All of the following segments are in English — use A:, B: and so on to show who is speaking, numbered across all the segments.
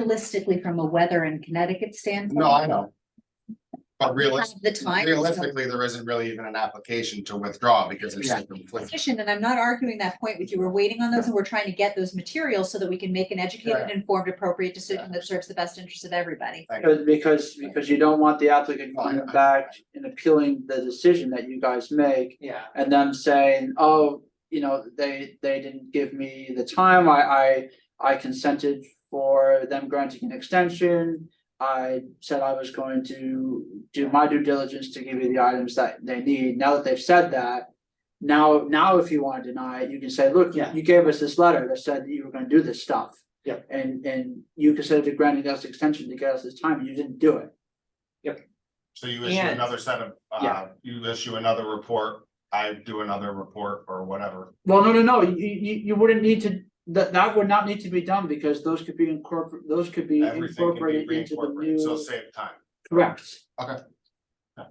A: realistically, from a weather and Connecticut standpoint.
B: No, I know. But
A: Have
B: realistically,
A: the time.
B: realistically, there isn't really even an application to withdraw because it's.
C: Yeah.
B: conflicting.
A: Position, and I'm not arguing that point with you. We're waiting on those and we're trying to get those materials so that we can make an educated,
B: Yeah.
A: informed, appropriate decision that serves the best interest of everybody.
C: Because, because, because you don't want the applicant coming back and appealing the decision that you guys make.
D: Yeah.
C: And them saying, oh, you know, they, they didn't give me the time, I, I, I consented for them granting an extension. I said I was going to do my due diligence to give you the items that they need, now that they've said that. Now, now if you wanna deny it, you can say, look,
D: Yeah.
C: you gave us this letter that said that you were gonna do this stuff.
D: Yeah.
C: And, and you consented granting us extension to get us this time, and you didn't do it.
B: So you issue
D: And-
B: another set of, uh,
C: Yeah.
B: you issue another report, I do another report or whatever.
C: Well, no, no, no, you, you, you wouldn't need to, that, that would not need to be done, because those could be incorporated, those could be
B: Everything can be
C: incorporated into the
B: reincorporated, so
C: new.
B: save time.
C: Correct,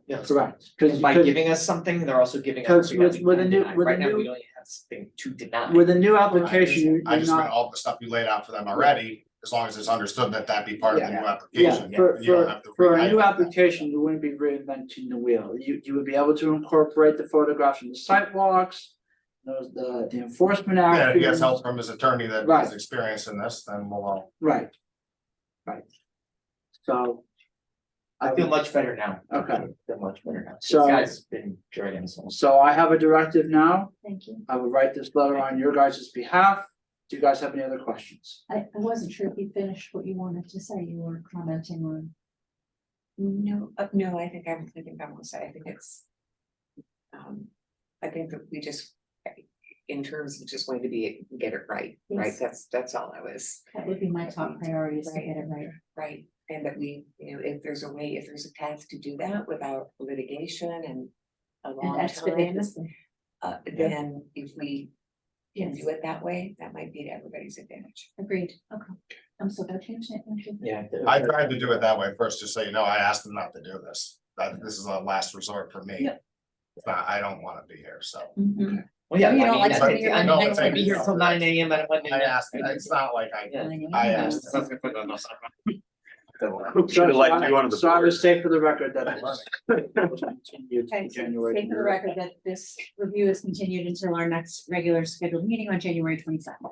D: Yes.
C: correct,
D: Because
C: cause,
D: by
C: 'cause
D: giving us something, they're also giving us.
C: Because
D: something that
C: with-
D: we
C: with a
D: can
C: new-
D: deny.
C: with a
D: Right now, we
C: new-
D: only have something to deny.
C: with a new application, you-
B: I
C: you're
B: just meant
C: not,
B: all the stuff you laid out for them already, as long as it's understood that that be part of the new
C: yeah,
B: application.
C: for,
B: You don't
C: for,
B: have to
C: for a
B: rewrite
C: new
B: that.
C: application, you wouldn't be reinventing the wheel. You, you would be able to incorporate the photographs from the sidewalks. Those, the, the enforcement
B: Yeah, if
C: action.
B: he has help from his attorney that
C: Right.
B: has experience in this, then we'll all.
C: Right. Right. So.
D: I feel much better now.
C: Okay.
D: Feel much better now. This
C: So-
D: guy's been dragging us along.
C: So I have a directive now.
A: Thank you.
C: I will write this letter on your guys' behalf. Do you guys have any other questions?
A: I, I wasn't sure if you finished what you wanted to say. You were commenting on.
E: No, uh, no, I think I'm, I think I'm also, I think it's. Um, I think that we just, in terms of just wanting to be, get it right, right,
A: Yes.
E: that's, that's all I was,
A: That would be my top priority is to get it right.
E: right? And that we, you know, if there's a way, if there's a path to do that without litigation and a
A: And
E: long
A: expedite
E: time,
A: this thing.
E: uh, then if we. Can
A: Yes.
E: do it that way, that might be to everybody's advantage.
A: Agreed. Okay. I'm so glad you mentioned it. Thank you.
D: Yeah.
B: I tried to do it that way first, just so you know, I asked them not to do this, that this is a last resort for me.
A: Yeah.
B: It's not, I don't wanna be here, so.
A: Mhm.
D: Well, yeah, I
A: You
D: mean,
A: don't like
D: I
A: spending
D: think,
A: your
D: I'm
A: money
D: not
A: next
D: gonna
A: to
D: be here till nine AM on a Monday
B: I
D: night.
B: asked, it's not like I,
D: Yeah.
B: I uh,
D: Yeah,
B: asked.
D: sounds good, but no, no, sorry.
C: So- so
F: liked
C: I-
F: you on the
C: So I
F: board.
C: was safe for the record that I was. continued to
A: Okay, so
C: January.
A: state for the record that this review is continued until our next regular scheduled meeting on January twenty second,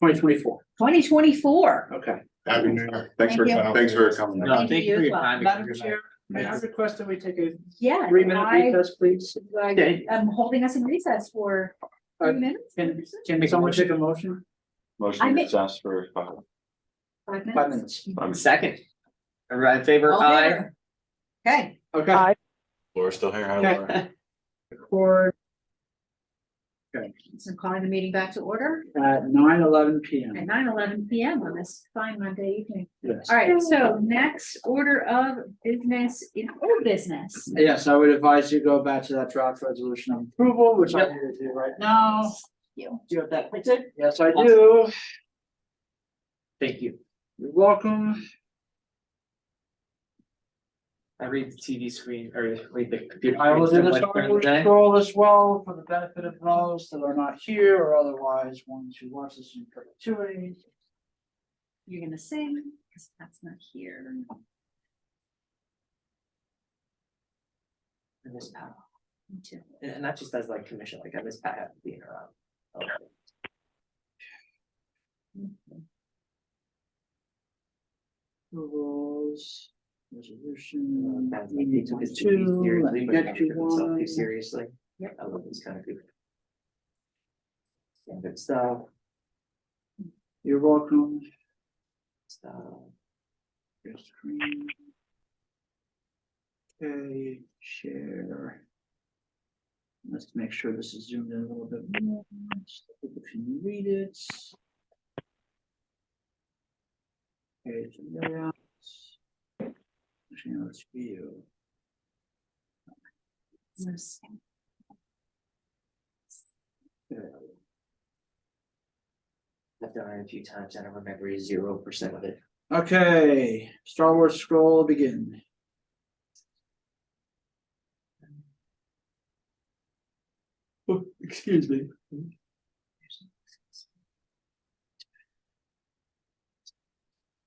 C: Twenty twenty-four,
A: twenty twenty four.
C: okay.
B: Happy New Year.
F: Thanks for,
A: Thank
B: you.
F: thanks for coming.
A: No, Thank thank you you for as your well. time.
C: Madam Chair, may I request that we take a
A: Yeah.
C: three-minute
A: I-
C: recess, please?
A: I- I'm holding us in recess for
C: Uh,
A: three minutes.
C: Can, can someone take a motion?
A: I
F: Motion
A: make-
F: to ask for five.
A: Five
C: Five
A: minutes.
C: minutes.
F: I'm-
D: Second. Everybody in favor,
A: All in
D: aye.
A: favor? Okay.
C: Okay.
F: Laura's still here, hi
C: Okay.
F: Laura.
C: For
A: So I'm calling the meeting back to order
C: at nine eleven P
A: at
C: M.
A: nine eleven P M on this fine Monday evening.
C: Yes.
A: All right, so next order of business in old business.
C: Yes, I would advise you go back to that draft resolution of approval, which I'm gonna do right now.
A: You.
C: Do you have that printed? Yes, I
D: Awesome.
C: do.
D: Thank you.
C: You're welcome.
D: I read the TV screen or read the computer.
C: I will do
D: screen
C: this
D: so much during the
C: artwork
D: day.
C: scroll as well for the benefit of those that are not here or otherwise want to watch this in perpetuity.
A: You're gonna sing, because that's not here.
D: I miss Pat.
A: Me too.
D: And and that just as like commission, like I miss Pat being around. Oh.
C: Rules, resolution.
D: That they they took it too
C: Two, let
D: seriously,
C: me
D: but not
C: get
D: took
C: you
D: themselves too
C: one.
D: seriously.
A: Yep.
D: I love these kind of people. Yeah, good stuff,
C: You're welcome.
D: stuff.
C: Your screen. Okay, share. Let's make sure this is zoomed in a little bit more. If you can read it. Okay, it's layout. Actually, no, it's view.
A: Yes.
D: I've done it a few times, I don't remember zero percent of it.
C: Okay, Star Wars scroll begin. Oh, Excuse me.